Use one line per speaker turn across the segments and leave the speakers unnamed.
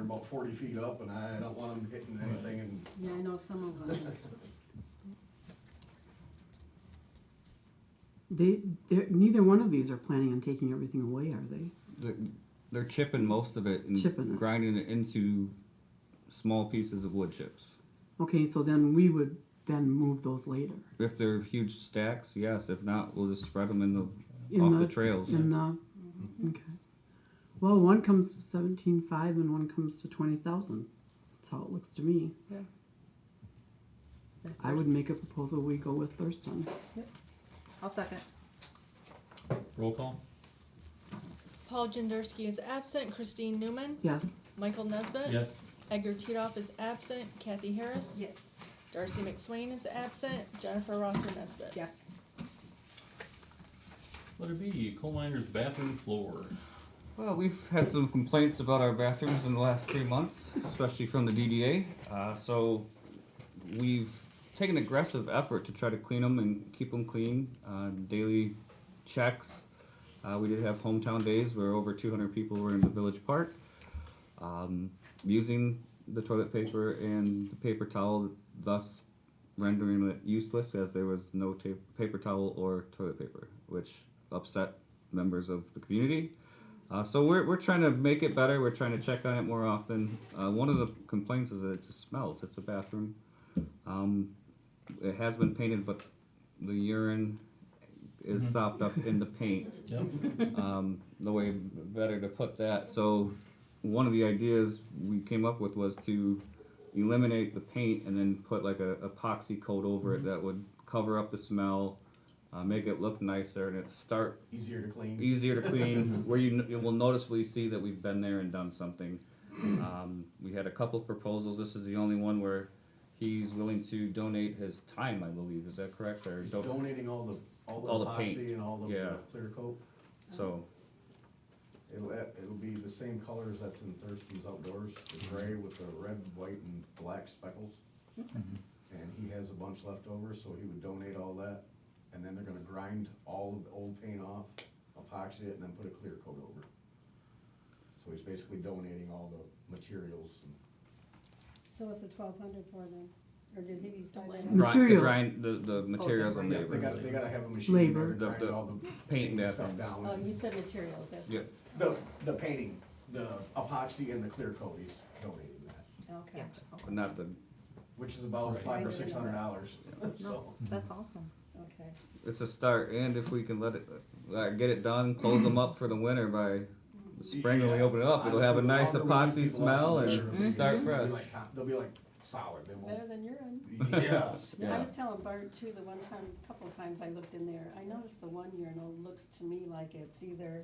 about forty feet up and I don't want them hitting anything and
Yeah, I know some of them.
They, they're, neither one of these are planning on taking everything away, are they?
They're, they're chipping most of it and
Chipping it.
grinding it into small pieces of wood chips.
Okay, so then we would then move those later.
If they're huge stacks, yes. If not, we'll just spread them in the
In
off the, trails.
in the, okay. Well, one comes to seventeen five and one comes to twenty thousand. That's how it looks to me. I would make a proposal, we go with Thurston.
I'll second.
Roll call?
Paul Jendersky is absent. Christine Newman.
Yes,
Michael Nesbitt.
Yes.
Edgar Titoff is absent. Kathy Harris.
Yes.
Darcy McSwain is absent. Jennifer Rosser Nesbitt.
Yes.
Letter B, coal miner's bathroom floor.
Well, we've had some complaints about our bathrooms in the last three months, especially from the DDA. Uh, so we've taken aggressive effort to try to clean them and keep them clean. Uh, daily checks. Uh, we did have hometown days where over 200 people were in the village park um, using the toilet paper and the paper towel, thus rendering it useless as there was no ta- paper towel or toilet paper, which upset members of the community. Uh, so we're, we're trying to make it better. We're trying to check on it more often. Uh, one of the complaints is that it just smells. It's a bathroom. Um, it has been painted, but the urine is sopped up in the paint.
Yep.
Um, no way better to put that. So one of the ideas we came up with was to eliminate the paint and then put like a epoxy coat over it that would cover up the smell, uh, make it look nicer, and it start
easier to clean.
easier to clean, where you, you will noticeably see that we've been there and done something. Um, we had a couple of proposals. This is the only one where he's willing to donate his time, I believe. Is that correct? Or
He's
do
donating all the, all
All
the
the paint.
epoxy and all the
Yeah.
uh, clear coat.
so
It'll, it'll be the same colors that's in Thurston's Outdoors, the
Mm-hmm.
gray with the red, white, and black speckles. And he has a bunch left over, so he would donate all that, and then they're gonna grind all of the old paint off, epoxy it, and then put a clear coat over. So he's basically donating all the materials and
So it's a twelve hundred for them, or did he decide
gri-
that?
No.
the
Materials.
grind the, the materials and
Oh, Yeah, They
labor.
gotta, they gotta have a machine in there to
Labor.
The-
grind
the
all the
paint
paint
and
stuff
bathrooms.
down.
Oh, you said materials, that's.
Yeah.
The, the painting, the epoxy and the clear coat, he's donating that,
Okay.
But not the
which is about
Right.
five or six hundred dollars, so.
That's awesome.
Okay.
it's a start and if we can let it uh, get it done, close them up for the winter by the spring when we
Yeah.
open it up, it'll have a
Honestly,
nice
the longer we
epoxy
keep people off
smell
the
and
road,
start
They'll
fresh.
be like, hot- they'll be like solid, they
Better
won't.
than urine.
Yes.
I
Yeah.
was telling Bart too, the one time, a couple times I looked in there, I noticed the one urinal looks to me like it's either,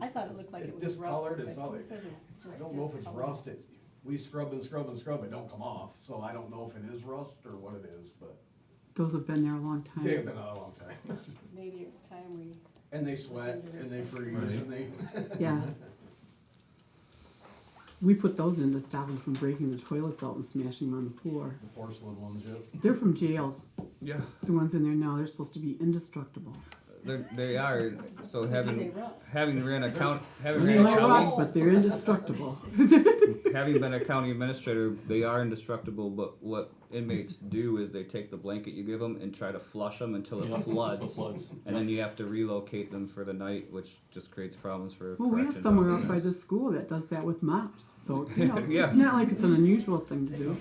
I thought it looked like it
It's
was
discolored,
rusted,
it's
but
all-
he says it's
I
just
don't know if it's
discolored.
rust, it, we scrub and scrub and scrub, it don't come off, so I don't know if it is rust or what it is, but
those have been there a long
Hmm.
time.
they've been out a long time.
Maybe it's time we,
And they sweat, and they freeze, and they,
Yeah. We put those in to stop them from breaking the toilets out and smashing them on the floor.
the porcelain ones, yep.
They're from jails.
Yeah.
The ones in there now, they're supposed to be indestructible.
They're, they are so
they
having
rust.
having ran account having
They
ran
might
accounting
rust, but they're indestructible.
having been a county administrator, they are indestructible. But what inmates do is they take the blanket you give them and try to flush them until it floods,
Floods.
and then you have to relocate them for the night, which just creates problems for.
Well, we have
corrections
somewhere out by
officers.
the school that does that with mops, so, you know,
Yeah.
it's not like it's an unusual thing to do.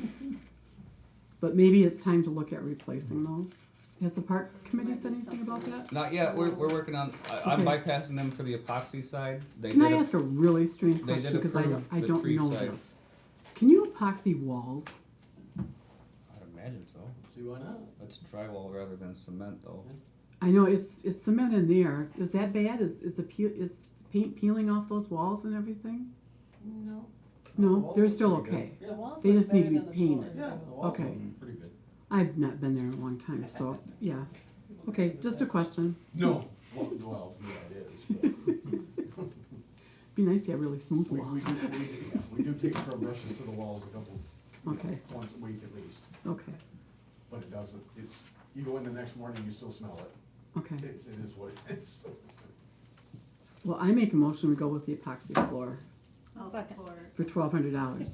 But maybe it's time to look at replacing those. Has the park committee said anything about that?
Not yet. We're, we're working on. I, I'm
Okay.
bypassing them for the epoxy side. They
Can
did
I
a-
ask a really strange
they did
question, because
approve
I, I
the
don't
tree
know
site.
this. Can you epoxy walls?
I'd imagine so.
See why not?
It's drywall rather than cement, though.
I know, it's, it's cement in there, is that bad, is, is the peel, is paint peeling off those walls and everything?
No.
No, they're still
pretty good.
okay.
the walls
They
look
just need
better
to be
than the floor.
painted.
Yeah, the walls
Okay.
look pretty good.
I've not been there in a long time, so, yeah. Okay, just a question,
No, well, well, yeah, it is, but.
be nice to have really smooth
We, we
walls,
do, we, yeah, we do take scrub brushes to the walls a couple,
okay,
once a week at least,
okay,
but it doesn't, it's, you go in the next morning, you still smell it.
okay.
It's, it is what it is.
Well, I make a motion, we go with the epoxy floor
I'll
Second.
support.
for twelve hundred dollars.